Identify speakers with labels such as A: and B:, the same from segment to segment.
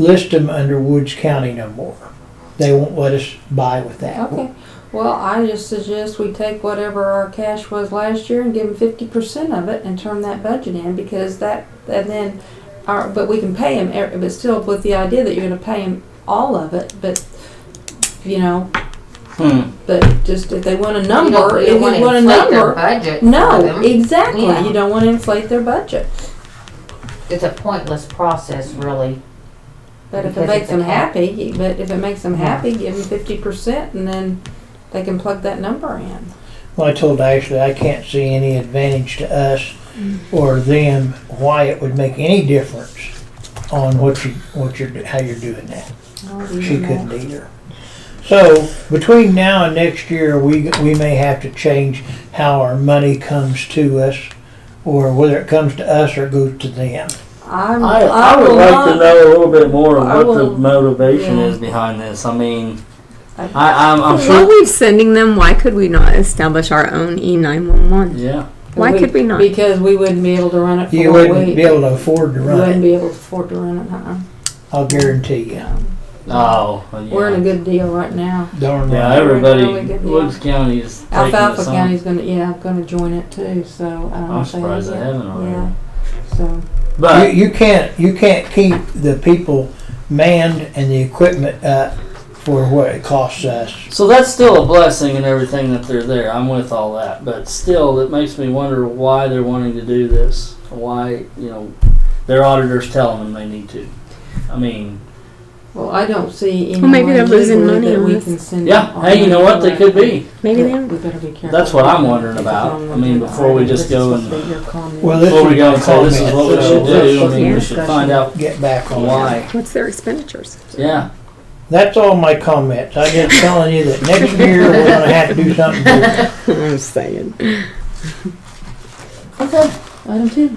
A: list them under Woods County no more. They won't let us buy with that.
B: Okay, well, I just suggest we take whatever our cash was last year and give them fifty percent of it and turn that budget in, because that, and then, our, but we can pay them, but still with the idea that you're gonna pay them all of it, but, you know,
C: Hmm.
B: but just if they want a
D: You don't-
B: number,
D: you
B: if you
D: don't wanna
B: want a
D: inflate their
B: number.
D: budget. for
B: No,
D: them.
B: exactly,
D: Yeah.
B: you don't wanna inflate their budget,
D: It's a pointless process, really.
B: but if it
D: Because
B: makes
D: it's a
B: them
D: cap.
B: happy, but if it makes them
D: Yeah.
B: happy, give them fifty percent and then they can plug that number in.
A: Well, I told Ashley I can't see any advantage to us or them why it would make any difference on what you what you're do- how you're doing that.
B: I'll do
A: She
B: that.
A: couldn't either. So between now and next year, we we may have to change how our money comes to us, or whether it comes to us or goes to them.
B: I'm,
C: I,
B: I
C: I would
B: will
C: like to
B: not-
C: know a little bit more of
B: I
C: what
B: will-
C: the motivation
B: yeah.
C: is behind this. I mean,
B: I-
C: I, I'm, I'm
E: While
C: sure.
E: we're sending them, why could we not establish our own E E911?
C: Yeah.
E: Why could we not?
B: Because we wouldn't be able to run it for
A: You
B: a
A: wouldn't
B: week.
A: be able to afford to
B: We
A: run
B: wouldn't
A: it.
B: be able to afford to run it. Uh-uh.
A: I'll guarantee you.
C: Oh. well, yeah.
B: We're in a good deal right now.
A: Darn
C: Yeah,
A: right.
C: everybody.
B: We're in a really good deal.
C: Woods County is taking
B: Alfalfa
C: this on.
B: County's gonna yeah gonna join it too. So uh, I don't know
C: I'm
B: if they
C: surprised
B: have
C: they
B: yet.
C: haven't already.
B: Yeah. So
C: But
A: you, you can't you can't keep the people manned and the equipment up for what it costs us.
C: So that's still a blessing and everything that they're there. I'm with all that, but still, it makes me wonder why they're wanting to do this. Why, you know, their auditors tell them they need to. I mean,
B: well, I don't see any.
E: Well, maybe they're
B: way
E: losing
B: legally
E: money
B: that
E: on
B: we
E: this.
B: can send them
C: yeah.
B: on
C: Hey, you know what? They could be.
E: Maybe
B: We
E: they are.
B: better be careful.
C: That's what I'm wondering about. I mean, before we just go and-
A: Well,
B: well,
A: this
C: Before we
A: is
C: go
A: my
C: and say this is
A: comment.
C: what we should do, I mean,
E: Yeah.
C: we should find out
A: Get back on that.
C: why.
E: What's their expenditures?
C: Yeah.
A: That's all my comments. I'm just telling you that next year we're going to have to do something. different.
E: I'm saying.
D: Okay.
B: item two.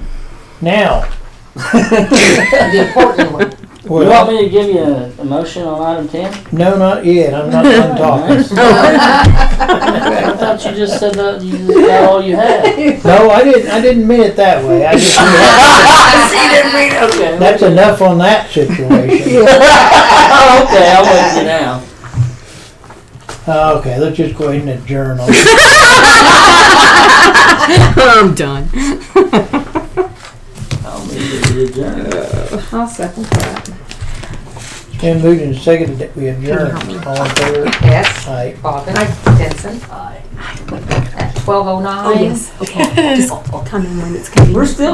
A: Now,
D: The important one.
C: you
A: well,
C: want me to give you a, a motion on item ten?
A: no, not yet. I'm not done talking.
C: I thought you just said that you just got all you had.
A: No, I didn't. I didn't mean it that way. I just
C: Okay.
A: that's enough on that situation.
C: Oh, okay. I'm with you now.
A: Uh, okay, let's just go ahead and adjourn. On
E: I'm done.
C: I'll leave it to adjourn.
B: I'll second that.
A: it's been moved and seconded that we adjourn. All in favor?
D: Yes.
A: Aye.
D: Bobbin. Jensen. At twelve oh nine.
E: Oh, yes. Okay. Just come in when it's convenient.
D: We're still